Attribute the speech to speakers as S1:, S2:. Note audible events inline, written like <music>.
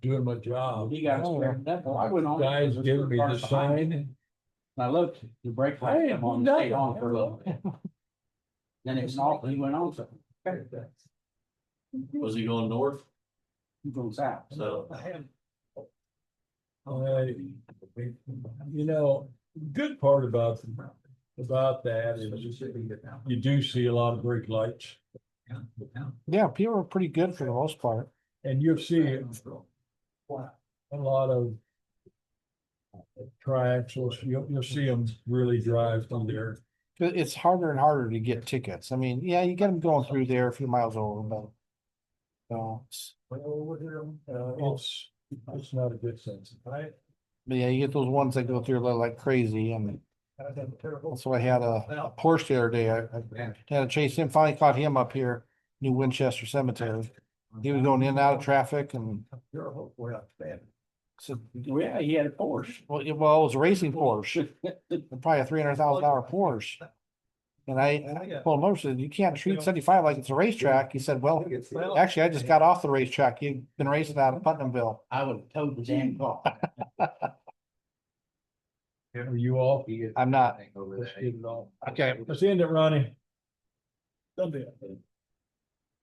S1: doing my job.
S2: You guys, scrambled up. I went on.
S1: Guys give me the sign.
S2: And I looked, the brake
S1: I
S2: light
S1: am
S2: came on,
S1: not-
S2: stayed on for a little bit. Then it was off, and he went on, so
S3: Was he going north?
S2: he goes out.
S3: So
S1: I- uh, You know, good part about, about that is you do see a lot of brake lights.
S4: Yeah, people are pretty good for the most part.
S1: And you'll see a lot of triaxles, you'll, you'll see them really drive through there.
S4: It- It's harder and harder to get tickets. I mean, yeah, you get them going through there a few miles over, but. So, it's-
S1: Uh, it's, it's not a good sense. I,
S4: but yeah, you get those ones that go through like- like crazy and so I had a a Porsche the other day. I, I had to chase him, finally caught him up here, New Winchester Cemetery. He was going in and out of traffic and said,
S2: Yeah, he had a Porsche.
S4: well, it well, it was a racing <laughs> Porsche,
S2: <laughs>
S4: probably a three hundred thousand dollar Porsche. And I, I told him, I said, you can't treat seventy-five like it's a racetrack. He said, well, Actually, I just got off the racetrack. You've been racing out of Putnamville.
S2: I would have towed the damn car.
S1: Are you all?
S4: I'm not.
S1: Let's get it all.
S4: Okay.
S1: Let's end it, Ronnie. Done deal.